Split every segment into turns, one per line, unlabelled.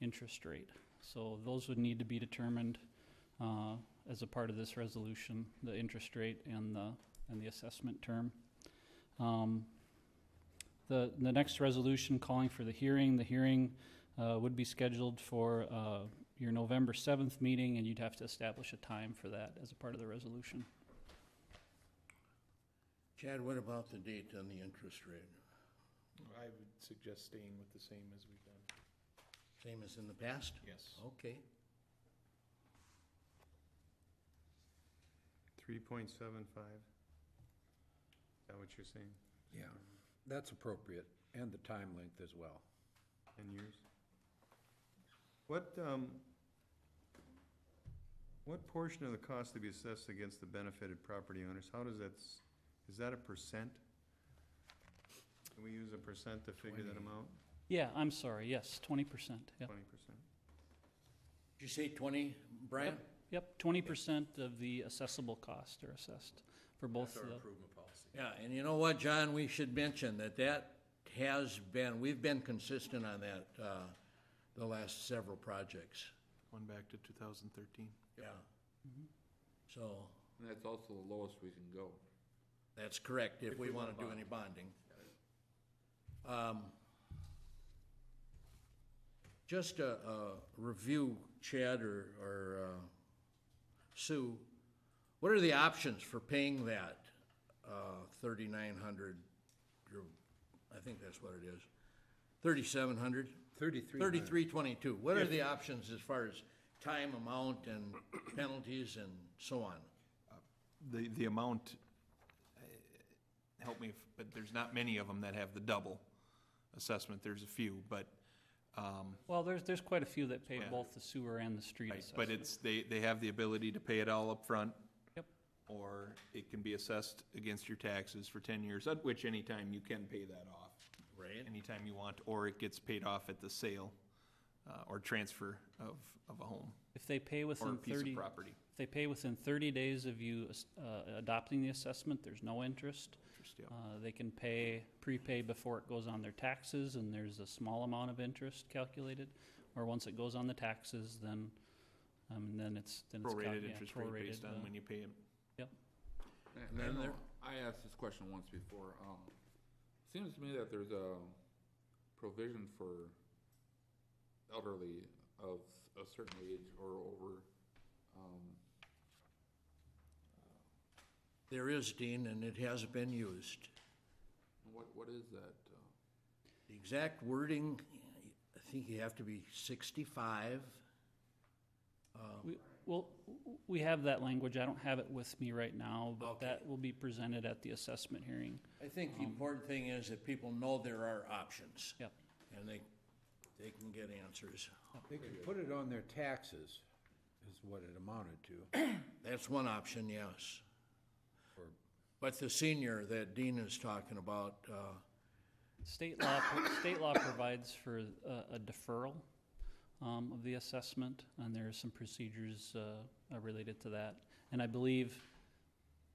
interest rate. So those would need to be determined uh, as a part of this resolution, the interest rate and the, and the assessment term. Um, The, the next resolution calling for the hearing, the hearing uh, would be scheduled for uh, your November 7th meeting, and you'd have to establish a time for that as a part of the resolution.
Chad, what about the date on the interest rate?
I would suggest staying with the same as we've done.
Same as in the past?
Yes.
Okay.
Three point seven five? Is that what you're saying?
Yeah, that's appropriate, and the time length as well.
Ten years? What, um, what portion of the cost to be assessed against the benefited property owners, how does that, s- is that a percent? Can we use a percent to figure that
Twenty.
amount?
Yeah, I'm sorry, yes, 20%, yep.
Twenty percent?
Did you say twenty, Brian?
Yep, 20% of the assessable cost are assessed for both the.
improvement policy.
Yeah, and you know what, John, we should mention that that has been, we've been consistent on that, uh, the last several projects.
Going back to 2013.
Yeah.
Mm-hmm.
So,
And that's also the lowest we can go.
that's correct, if we wanna do any bonding. Um, Just a, a review, Chad or, or, uh, Sue, what are the options for paying that, uh, thirty-nine hundred? I think that's what it is, thirty-seven hundred?
Thirty-three.
Thirty-three twenty-two. What are the options as far as time, amount, and penalties and so on?
The, the amount, uh, help me, if- but there's not many of them that have the double assessment. There's a few, but, um,
Well, there's, there's quite a few that pay
Yeah.
both the sewer and the street
right,
assessment.
but it's, they, they have the ability to pay it all up front,
Yep,
Or it can be assessed against your taxes for ten years, at which any time you can pay that off.
Right.
Anytime you want, or it gets paid off at the sale, uh, or transfer of, of a home
if they pay
or a
within
piece of
thirty,
property.
if they pay within thirty days of you, uh, adopting the assessment, there's no interest.
Interest, yeah.
Uh, they can pay, prepay before it goes on their taxes, and there's a small amount of interest calculated. Or once it goes on the taxes, then, um, then it's, then it's. cal-
Prorated
yeah,
interest rate based
prorated,
on
uh,
when you pay it.
And then
I know-
there-
uh, I asked this question once before. Um, seems to me that there's a provision for elderly of a certain age or over. Um,
There is, Dean, and it hasn't been used.
what, what is that? uh,
The exact wording, I think you have to be sixty-five.
uh, We, well, w- we have that language. I don't have it with me right now, but
Okay.
that will be presented at the assessment hearing.
I think the important thing is that people know there are options.
Yep.
And they, they can get answers.
They can put it on their taxes, is what it amounted to.
That's one option, yes.
Or-
But the senior that Dean is talking about, uh,
State law, state law provides for uh, a- a deferral um, of the assessment, and there are some procedures uh, uh, related to that. And I believe,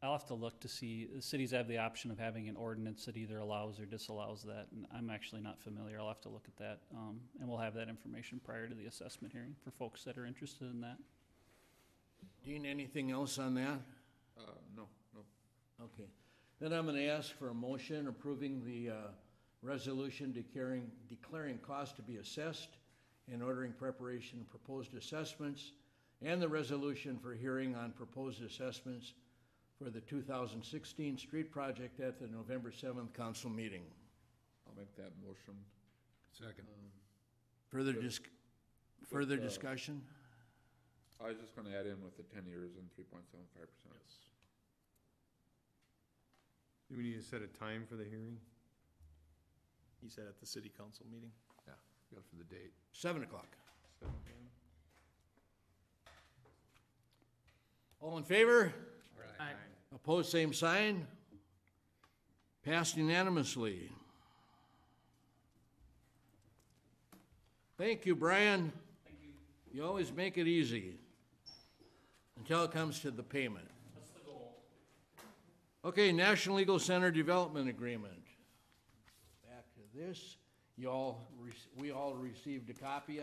I'll have to look to see, the cities have the option of having an ordinance that either allows or disallows that, and I'm actually not familiar. I'll have to look at that, um, and we'll have that information prior to the assessment hearing for folks that are interested in that.
Dean, anything else on that?
Uh, no, no.
Okay. Then I'm gonna ask for a motion approving the, uh, resolution declaring, declaring cost to be assessed and ordering preparation of proposed assessments and the resolution for hearing on proposed assessments for the two thousand sixteen street project at the November seventh council meeting.
I'll make that motion.
Second.
Further dis- further discussion?
I was just gonna add in with the ten years and three point seven five percent.
Do we need to set a time for the hearing?
He said at the city council meeting.
Yeah, go for the date.
Seven o'clock.
Seven p.m.?
All in favor?
Aye.
Opposed, same sign. Passed unanimously. Thank you, Brian. Thank you. You always make it easy until it comes to the payment. That's the goal. Okay, National Legal Center Development Agreement. Back to this. You all, rec- we all received a copy